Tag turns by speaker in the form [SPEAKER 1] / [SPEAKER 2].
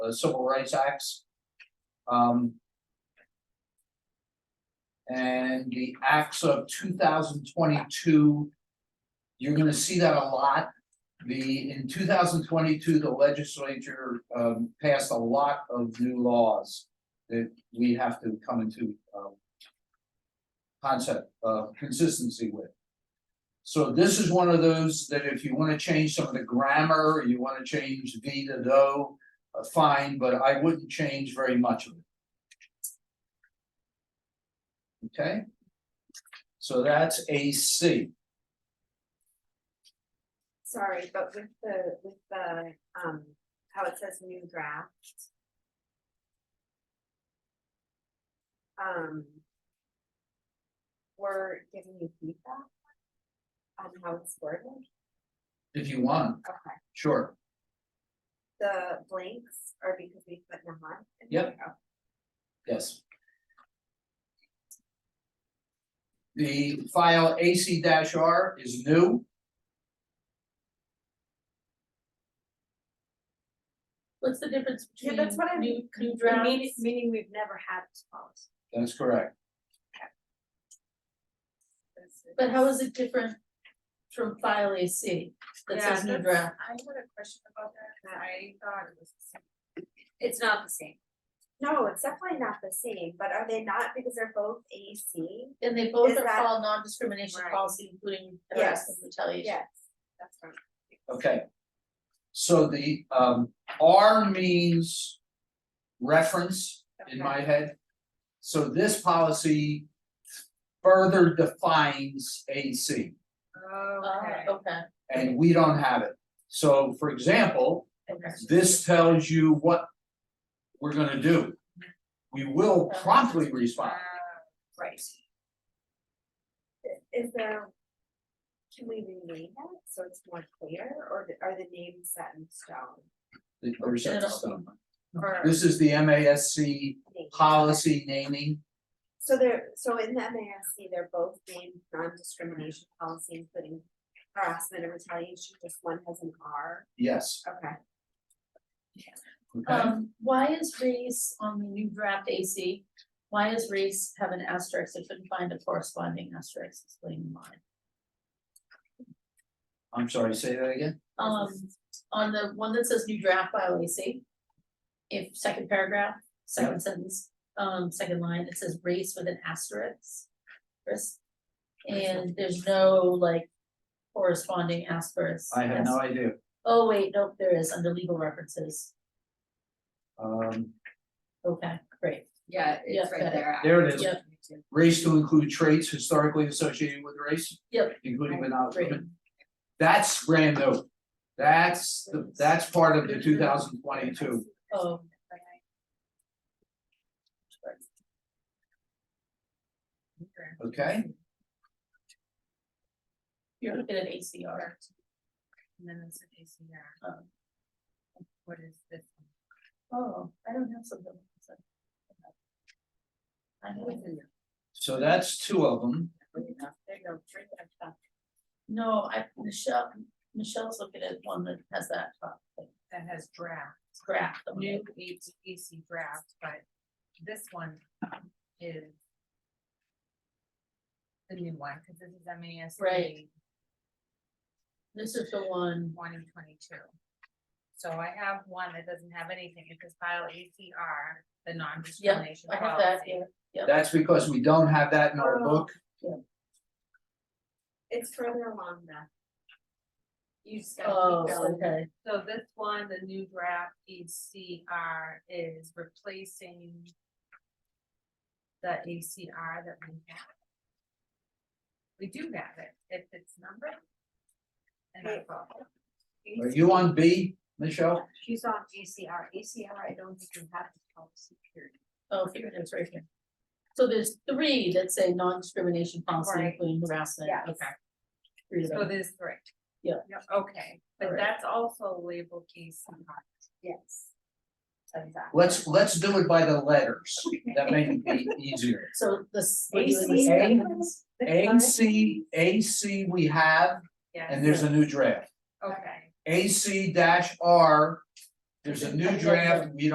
[SPEAKER 1] uh, Civil Rights Acts. Um. And the acts of two thousand twenty-two. You're gonna see that a lot. The, in two thousand twenty-two, the legislature um passed a lot of new laws that we have to come into um. Concept, uh, consistency with. So this is one of those that if you wanna change some of the grammar, you wanna change V to though. uh, Fine, but I wouldn't change very much of it. Okay? So that's A C.
[SPEAKER 2] Sorry, but with the, with the, um, how it says new draft. Um. We're giving you feedback. On how it's worded,
[SPEAKER 1] If you want,
[SPEAKER 2] okay,
[SPEAKER 1] sure,
[SPEAKER 2] the blanks are because we put them on.
[SPEAKER 1] Yep. yes. The file AC R is new.
[SPEAKER 3] What's the difference
[SPEAKER 2] Yeah,
[SPEAKER 3] between
[SPEAKER 2] that's what I
[SPEAKER 3] new, new
[SPEAKER 2] Meaning,
[SPEAKER 3] drafts?
[SPEAKER 2] meaning we've never had this policy.
[SPEAKER 1] That's correct.
[SPEAKER 3] But how is it different from file AC that says new draft?
[SPEAKER 2] I had a question about that, I thought it was the same.
[SPEAKER 4] It's not the same.
[SPEAKER 2] No, it's definitely not the same, but are they not because they're both AC?
[SPEAKER 3] And they both
[SPEAKER 2] Is
[SPEAKER 3] are
[SPEAKER 2] that-
[SPEAKER 3] called non-discrimination
[SPEAKER 2] Right.
[SPEAKER 3] policy, including harassment
[SPEAKER 2] Yes.
[SPEAKER 3] retaliation.
[SPEAKER 2] That's right.
[SPEAKER 1] Okay. So the um R means reference in my head. So this policy further defines AC
[SPEAKER 2] Okay.
[SPEAKER 1] Oh,
[SPEAKER 3] Uh, okay,
[SPEAKER 1] and we don't have it. So for example,
[SPEAKER 3] okay.
[SPEAKER 1] this tells you what we're gonna do. We will promptly respond.
[SPEAKER 2] Uh, Right. Is there, can we rename that so it's more clear, or th- are the names set in stone?
[SPEAKER 1] Or set in stone.
[SPEAKER 2] Or
[SPEAKER 1] This is the MASC
[SPEAKER 2] names?
[SPEAKER 1] policy naming.
[SPEAKER 2] So they're, so in the MASC, they're both named non-discrimination policy, including harassment and retaliation, just one has an R,
[SPEAKER 1] Yes,
[SPEAKER 2] okay.
[SPEAKER 1] okay,
[SPEAKER 3] Um, why is race on the new draft AC, why is race have an asterisk? I couldn't find a corresponding asterisk explaining why.
[SPEAKER 1] I'm sorry, say that again?
[SPEAKER 3] Um, on the one that says new draft by Lacy. If second paragraph,
[SPEAKER 1] Yeah.
[SPEAKER 3] second sentence, um, second line, it says race with an asterisk. Chris, and there's no like corresponding asterisk.
[SPEAKER 1] I have no idea,
[SPEAKER 3] Oh, wait, nope, there is under legal references.
[SPEAKER 1] um,
[SPEAKER 3] Okay, great.
[SPEAKER 4] Yeah,
[SPEAKER 3] Yeah,
[SPEAKER 4] it's right
[SPEAKER 3] got it.
[SPEAKER 4] there.
[SPEAKER 1] There it is.
[SPEAKER 3] Yep.
[SPEAKER 1] race to include traits historically associated with race.
[SPEAKER 3] Yep.
[SPEAKER 1] Including but not
[SPEAKER 3] Great.
[SPEAKER 1] limited, that's brand new, that's, the that's part of the two thousand twenty-two,
[SPEAKER 3] Oh.
[SPEAKER 1] okay?
[SPEAKER 3] You're looking at ACR.
[SPEAKER 4] And then it's an ACR.
[SPEAKER 3] um,
[SPEAKER 4] What is this?
[SPEAKER 3] Oh, I don't have something. like this. I have it.
[SPEAKER 1] So that's two of them,
[SPEAKER 4] There you go, drink that stuff.
[SPEAKER 3] No, I, Michelle, Michelle's looking at one that has that top thing,
[SPEAKER 4] That has draft,
[SPEAKER 3] graph. on it.
[SPEAKER 4] new AC draft, but this one is. The new one, cause this is MASC.
[SPEAKER 3] Right. This is the one,
[SPEAKER 4] One and twenty-two. So I have one that doesn't have anything, it says file ACR, the non-discrimination
[SPEAKER 3] I
[SPEAKER 4] policy.
[SPEAKER 3] have that here,
[SPEAKER 1] that's because we don't have that in our
[SPEAKER 2] Oh.
[SPEAKER 1] book,
[SPEAKER 2] It's further along the.
[SPEAKER 4] You just
[SPEAKER 3] oh,
[SPEAKER 4] gotta keep going.
[SPEAKER 3] okay,
[SPEAKER 4] So this one, the new draft ACR is replacing the ACR that we have. We do have it, if it's numbered. And I thought,
[SPEAKER 1] are you on B, Michelle?
[SPEAKER 2] She's on E ACR, ACR, I don't think you have this policy period.
[SPEAKER 3] oh, here it is, right here. So there's three that say non-discrimination policy,
[SPEAKER 4] Right.
[SPEAKER 3] including harassment,
[SPEAKER 2] Yes.
[SPEAKER 3] okay. Three of
[SPEAKER 4] so
[SPEAKER 3] them.
[SPEAKER 4] Oh, this is correct.
[SPEAKER 3] Yeah.
[SPEAKER 4] okay, but
[SPEAKER 3] Alright.
[SPEAKER 4] that's also labeled ACR.
[SPEAKER 2] Yes.
[SPEAKER 4] Exactly.
[SPEAKER 1] Let's, let's do it by the letters, that may be easier.
[SPEAKER 3] So this. we're doing
[SPEAKER 2] AC
[SPEAKER 3] this-
[SPEAKER 2] seconds.
[SPEAKER 1] A C, A C we have, and there's a new draft.
[SPEAKER 4] Okay.
[SPEAKER 1] AC R, there's a new draft, we